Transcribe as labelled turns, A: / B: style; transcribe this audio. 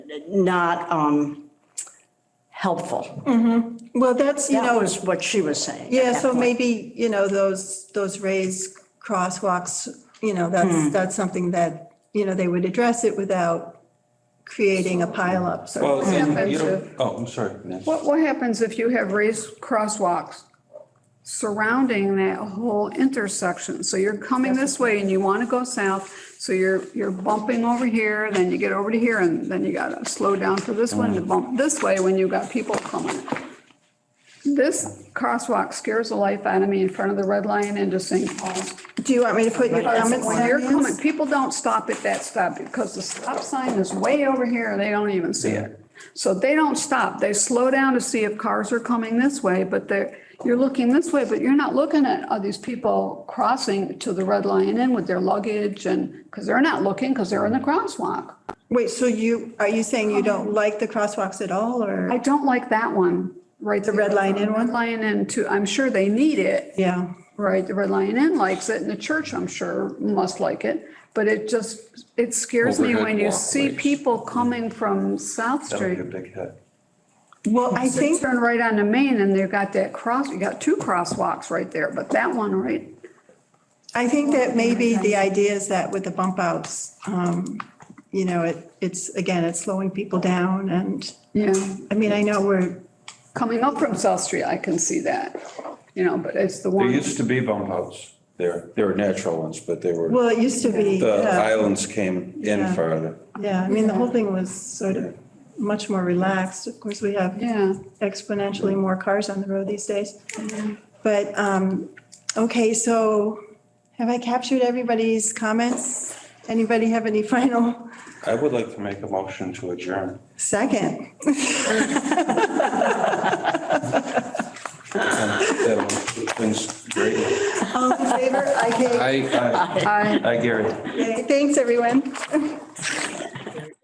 A: not um, helpful,
B: Well, that's, you
A: that
B: know,
A: was what she was saying. at
B: yeah,
A: that
B: so
A: point.
B: maybe, you know, those, those raised crosswalks, you know,
A: Hmm.
B: that's, that's something that, you know, they would address it without creating a pileup.
C: Well,
B: So
C: and you don't, oh, I'm sorry, Nancy.
D: What, what happens if you have raised crosswalks surrounding that whole intersection? So you're coming this way and you want to go south, so you're, you're bumping over here, then you get over to here, and then you gotta slow down for this one to bump this way when you've got people coming. This crosswalk scares the life out of me in front of the Red Lion into St. Paul's.
B: do you want me to put your comments
D: When you're
B: on
D: coming,
B: this?
D: people don't stop at that stop because the stop sign is way over here. They don't even see it. So they don't stop. They slow down to see if cars are coming this way, but they're, you're looking this way, but you're not looking at all these people crossing to the Red Lion Inn with their luggage and, because they're not looking, because they're in the crosswalk.
B: Wait, so you, are you saying you
A: Um,
B: don't like the crosswalks at all
D: I
B: or?
D: don't like that one, right? The
B: Red Lion Inn one?
D: Red Lion Inn too. I'm sure they need it.
B: Yeah,
D: Right, the Red Lion Inn likes it, and the church, I'm sure, must like it, but it just, it scares me
C: Overhead
D: when you see
C: walkways.
D: people coming from South
C: That would
D: Street.
C: be a big hit.
B: well, I
D: They
B: think,
D: turn right onto Main, and they've got that cross, you got two crosswalks right there, but that one, right?
B: I think that maybe the idea is that with the bump outs, um, you know, it, it's, again, it's slowing people down and,
D: Yeah,
B: I mean, I know we're,
D: coming up from South Street, I can see that, you know, but it's the
C: There
D: one,
C: used to be bump outs there. There were natural ones, but they were,
B: well, it used to be.
C: the
B: yeah.
C: islands came in
B: Yeah.
C: farther.
B: Yeah, I mean, the whole thing was sort of much more relaxed. Of course, we have
D: yeah.
B: exponentially more cars on the road these days. But, um, okay, so have I captured everybody's comments? Anybody have any final
C: I would like to make a motion to adjourn.
B: second?
C: That would- uh, Things great.
B: All in favor? I
C: I,
D: I,
C: I, Gary.
B: Thanks, everyone.